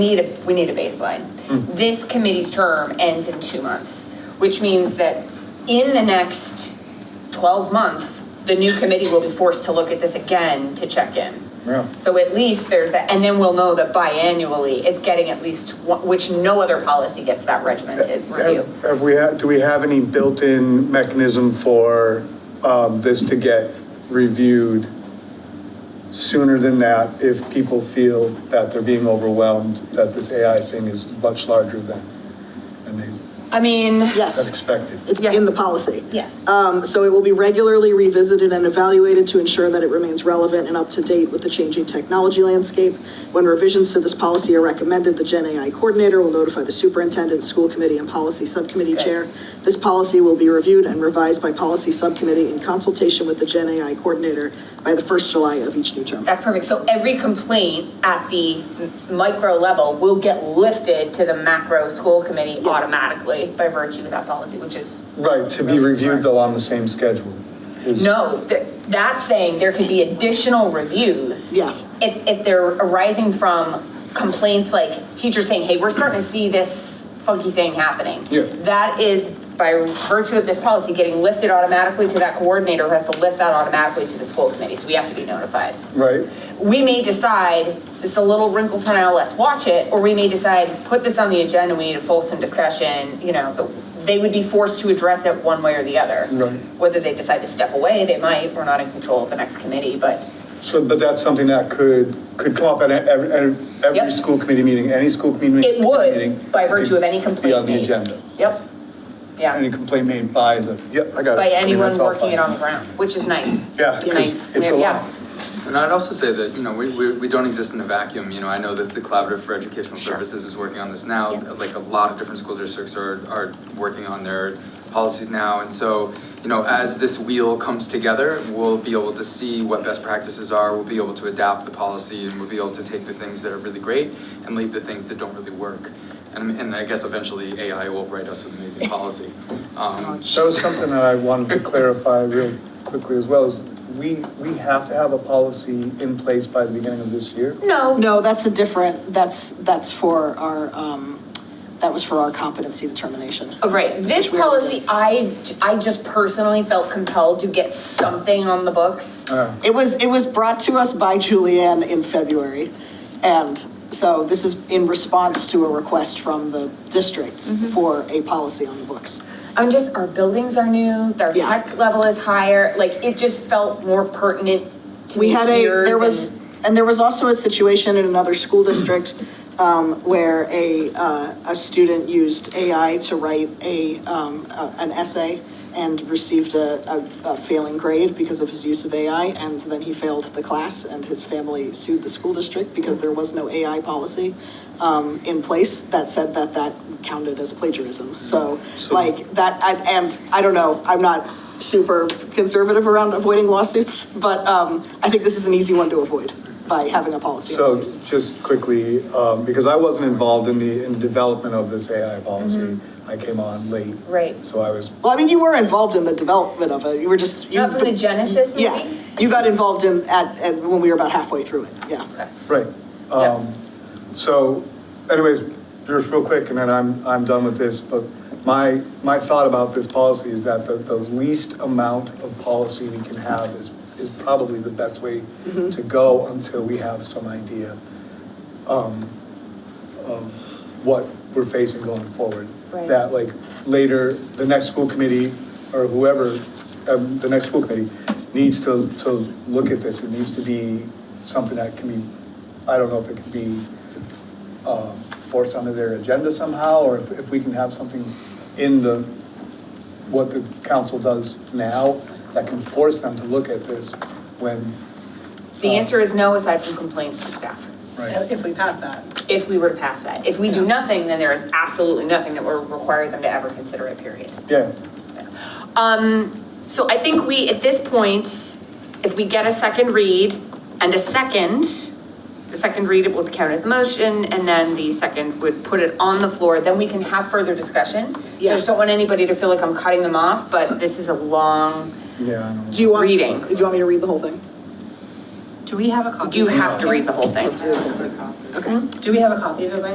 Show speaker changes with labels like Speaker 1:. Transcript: Speaker 1: need a, we need a baseline. This committee's term ends in two months, which means that in the next 12 months, the new committee will be forced to look at this again to check in.
Speaker 2: Yeah.
Speaker 1: So at least there's that, and then we'll know that biannually, it's getting at least, one- which no other policy gets that regimented review.
Speaker 2: Have have we, had- do we have any built-in mechanism for um, this to get reviewed sooner than that if people feel that they're being overwhelmed, that this AI thing is much larger than, than they
Speaker 1: I mean,
Speaker 2: had
Speaker 3: Yes,
Speaker 2: expected?
Speaker 3: it's
Speaker 1: Yeah.
Speaker 3: in the policy.
Speaker 1: yeah.
Speaker 3: Um, so it will be regularly revisited and evaluated to ensure that it remains relevant and up to date with the changing technology landscape. When revisions to this policy are recommended, the Gen AI coordinator will notify the superintendent, school committee, and policy subcommittee
Speaker 1: Okay.
Speaker 3: chair. This policy will be reviewed and revised by policy subcommittee in consultation with the Gen AI coordinator by the first July of each new term.
Speaker 1: That's perfect. So every complaint at the m- micro level will get lifted to the macro school committee automatically by virtue of that policy, which is,
Speaker 2: Right, to be reviewed though on the same schedule. is-
Speaker 1: no, th- that's saying there could be additional reviews.
Speaker 3: Yeah.
Speaker 1: If, if they're arising from complaints like teachers saying, hey, we're starting to see this funky thing happening.
Speaker 2: Yeah.
Speaker 1: That is by virtue of this policy getting lifted automatically to that coordinator who has to lift that automatically to the school committee. So we have to be notified.
Speaker 2: Right?
Speaker 1: we may decide, this is a little wrinkle for now, let's watch it, or we may decide, put this on the agenda, we need a fulsome discussion, you know, the- they would be forced to address it one way or the other.
Speaker 2: Right.
Speaker 1: Whether they decide to step away, they might, we're not in control of the next committee, but
Speaker 2: So, but that's something that could, could come up at every, every- every
Speaker 1: Yep.
Speaker 2: school committee meeting, any school committee meeting.
Speaker 1: it would, by virtue of any complaint
Speaker 2: Be on the
Speaker 1: made.
Speaker 2: agenda.
Speaker 1: Yep,
Speaker 2: Any
Speaker 1: yeah,
Speaker 2: complaint made by the, yep, I got it.
Speaker 1: by
Speaker 2: I mean,
Speaker 1: anyone
Speaker 2: that's all
Speaker 1: working it
Speaker 2: fine.
Speaker 1: on the ground, which is nice.
Speaker 2: Yeah,
Speaker 1: It's
Speaker 2: 'cause
Speaker 1: nice,
Speaker 2: it's a
Speaker 1: yeah.
Speaker 2: lot.
Speaker 4: And I'd also say that, you know, we, we, we don't exist in a vacuum, you know, I know that the Collaborative for Educational
Speaker 1: Sure.
Speaker 4: Services is working on this now,
Speaker 1: Yeah.
Speaker 4: like a lot of different school districts are, are working on their policies now, and so, you know, as this wheel comes together, we'll be able to see what best practices are, we'll be able to adapt the policy, and we'll be able to take the things that are really great and leave the things that don't really work. And, and I guess eventually AI will write us an amazing policy. Um,
Speaker 2: That was something that I wanted to clarify real quickly as well, is we, we have to have a policy in place by the beginning of this year?
Speaker 1: No,
Speaker 3: No, that's a different, that's, that's for our, um, that was for our competency determination.
Speaker 1: Oh, right, this
Speaker 3: Which we already did.
Speaker 1: policy, I, I just personally felt compelled to get something on the books.
Speaker 2: Uh,
Speaker 3: It was, it was brought to us by Julianne in February. And so this is in response to a request from the district for a policy on the books.
Speaker 1: I'm just, our buildings are new, their
Speaker 3: Yeah.
Speaker 1: tech level is higher, like, it just felt more pertinent to
Speaker 3: We
Speaker 1: me
Speaker 3: had a,
Speaker 1: here
Speaker 3: there was,
Speaker 1: than-
Speaker 3: and there was also a situation in another school district um, where a, uh, a student used AI to write a, um, a- an essay and received a, a- a failing grade because of his use of AI, and then he failed the class, and his family sued the school district because there was no AI policy um, in place that said that that counted as plagiarism. So,
Speaker 2: So-
Speaker 3: like, that, I- and, I don't know, I'm not super conservative around avoiding lawsuits, but um, I think this is an easy one to avoid by having a policy in
Speaker 2: So
Speaker 3: place.
Speaker 2: just quickly, um, because I wasn't involved in the, in the development of this AI policy, I came on late.
Speaker 1: Mm-hmm. Right.
Speaker 2: So I was,
Speaker 3: Well, I mean, you were involved in the development of it. You were just. you-
Speaker 1: Not from the Genesis
Speaker 3: Yeah,
Speaker 1: meeting?
Speaker 3: you got involved in, at, at, when we were about halfway through it, yeah.
Speaker 2: right.
Speaker 1: Yeah.
Speaker 2: Um, So anyways, just real quick, and then I'm, I'm done with this, but my, my thought about this policy is that the, the least amount of policy we can have is, is probably the best way to go until we have some idea um, of what we're facing going forward.
Speaker 1: Right.
Speaker 2: That like later, the next school committee or whoever, um, the next school committee needs to, to look at this. It needs to be something that can be, I don't know if it can be um, forced onto their agenda somehow, or if, if we can have something in the, what the council does now that can force them to look at this when.
Speaker 3: Oh.
Speaker 1: The answer is no, aside from complaints from staff,
Speaker 2: Right.
Speaker 5: If we pass that.
Speaker 1: if we were to pass that. If we do nothing, then there is absolutely nothing that will require them to ever consider it, period.
Speaker 2: Yeah,
Speaker 1: Um, so I think we, at this point, if we get a second read and a second, the second read it will be counted as a motion, and then the second would put it on the floor, then we can have further discussion. I
Speaker 3: Yeah.
Speaker 1: just don't want anybody to feel like I'm cutting them off, but this is a long,
Speaker 2: yeah, I don't
Speaker 3: Do you want?
Speaker 1: Reading.
Speaker 3: Do you want me to read the whole thing?
Speaker 5: Do we have a copy?
Speaker 1: You have to read the whole thing.
Speaker 5: Let's read the whole thing.
Speaker 3: Okay.
Speaker 5: Do we have a copy of it by